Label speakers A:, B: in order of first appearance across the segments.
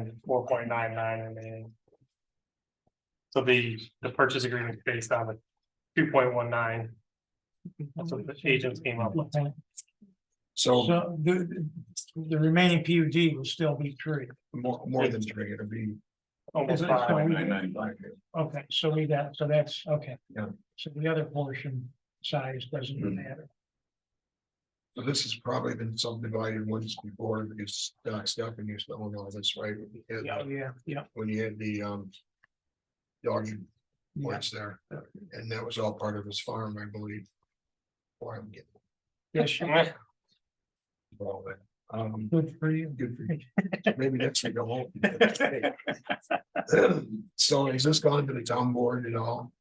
A: and four point nine nine remaining. So the, the purchase agreement is based on the two point one nine. That's what the agents came up with.
B: So
C: So the, the remaining PUD will still be three.
B: more, more than three, it'll be.
A: Almost
C: Is it- so
A: five.
C: we-
B: 9.95.
C: Okay, so we got, so that's, okay.
B: Yeah. Mm-hmm.
C: So the other portion size doesn't matter.
B: So this has probably been subdivided once before, because Doc Stefan used to own all this, right? When you had-
C: Yeah, yeah, yeah.
B: When you had the, um. Dog points there, and that was all part of his farm, I believe. Or I'm getting
C: Yes, you-
B: all that, um,
C: good for you.
B: good for you. Maybe next week I'll. So has this gone to the town board at all?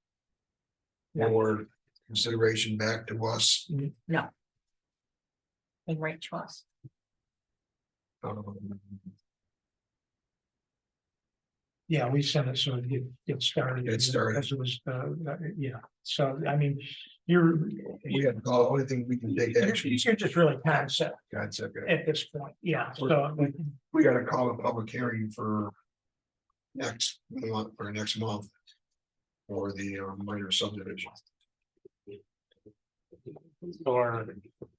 B: Or consideration back to us?
D: and right to us.
B: Um,
C: Yeah, we sent it, so it gets started.
B: Get started.
C: Because it was, uh, uh, yeah, so I mean, you're,
B: We had, the only thing we can take
C: you're
B: action, is
C: you're just really concept
B: concept.
C: at this point, yeah, so.
B: We gotta call a public hearing for. Next month, or next month. For the uh, minor subdivision.
A: So our,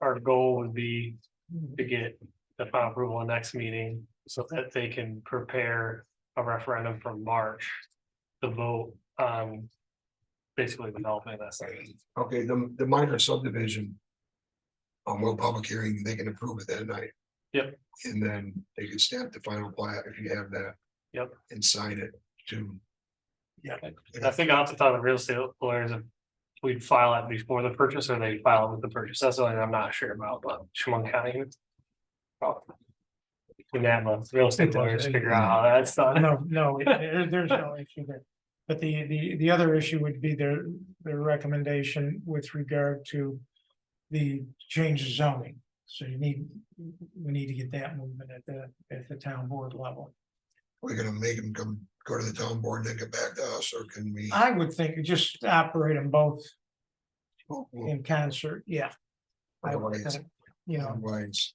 A: our goal would be to get the final approval in next meeting so that they can prepare a referendum for March. To vote on basically developing this.
B: Okay, the, the minor subdivision. On one public hearing, they can approve it that night.
A: Yep.
B: And then they can stamp the final plat if you have that.
A: Yep.
B: And sign it to.
A: Yeah. And I think off the top of real estate lawyers, if we'd file it before the purchase or they file it with the purchase. That's something I'm not sure about, but Chemung County. Oh. We have a real estate lawyers figure out how that's done.
C: No, no, it- there- there's no issue there. But the, the, the other issue would be their, their recommendation with regard to the change of zoning. So you need, we need to get that movement at the, at the town board level.
B: We're gonna make them come, go to the town board and then get back to us, or can we?
C: I would think you just operate them both
B: we'll- we'll-
C: in concert, yeah. I would
B: Otherwise-
C: think, You know,
B: Otherwise.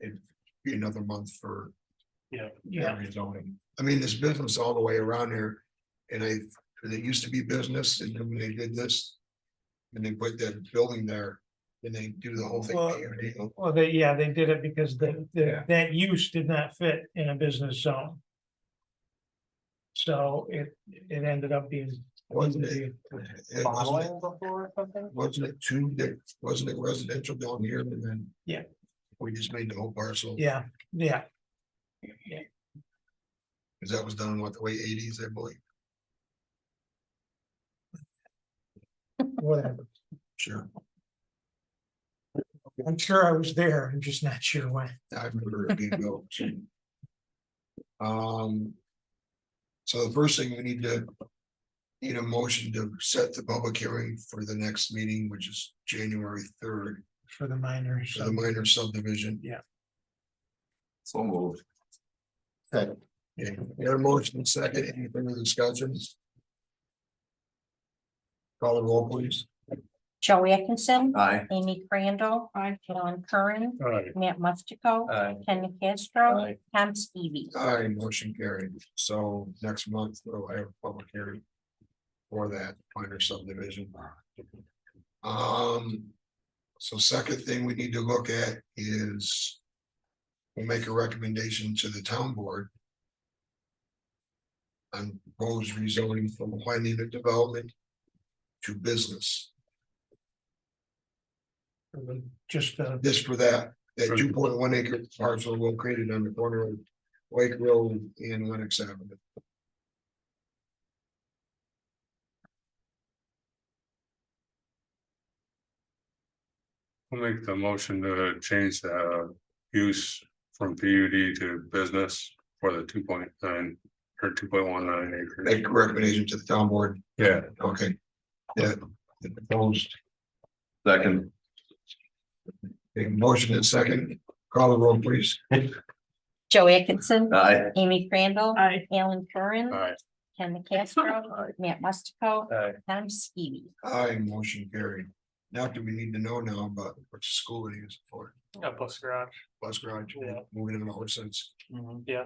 B: It'd be another month for
C: yeah,
B: area zoning. I mean, there's business all the way around here. And I, there used to be business and then when they did this. And they put that building there, then they do the whole thing.
C: Well-
B: PUD.
C: well, they, yeah, they did it because the, the,
B: Yeah.
C: that use did not fit in a business zone. So it, it ended up being.
B: Wasn't it? It Wasn't it-
A: Bottling before or something?
B: wasn't it two, that, wasn't it residential down here and then?
C: Yeah.
B: We just made the whole parcel,
C: Yeah, yeah,
B: because that was done in what, the way eighties, I believe,
C: whatever.
B: sure.
C: I'm sure I was there. I'm just not sure when.
B: I remember it being built. Um. So the first thing we need to. Need a motion to set the public hearing for the next meeting, which is January third,
C: For the minors.
B: for the minor subdivision.
C: Yeah.
B: So moved. Second. Yeah, we got a motion and second, any further discussions? Call the roll, please.
D: Joey Atkinson.
E: Aye.
D: Amy Crandall. John Curran.
A: All right.
D: Matt Mustico.
E: Aye.
D: Ken Castro.
E: Aye.
D: Tom Stevie.
B: Aye, motion carried. So next month, we'll have a public hearing. For that minor subdivision. Um. So second thing we need to look at is. We'll make a recommendation to the town board. On proposed rezoning from planned unit development. To business,
C: Just uh, the,
B: this for that, that two point one acre parcel located on the corner of. Lake Road and Lennox Avenue.
F: I'll make the motion to change the uh, use from PUD to business for the two point nine or two point one nine acres.
B: make a recommendation to the town board,
F: Yeah,
B: okay? Yeah, the proposed,
E: Second.
B: a motion and second, call the roll, please.
D: Joey Atkinson.
E: Aye.
D: Amy Crandall. Alan Curran.
F: Aye.
D: Ken Castro. Matt Mustico.
E: Aye.
D: Tom Stevie.
B: I motion carried. Now, do we need to know now about which school it is for?
A: Yeah, plus garage.
B: Bus garage,
A: Yeah.
B: moving in the sense.
A: Yeah.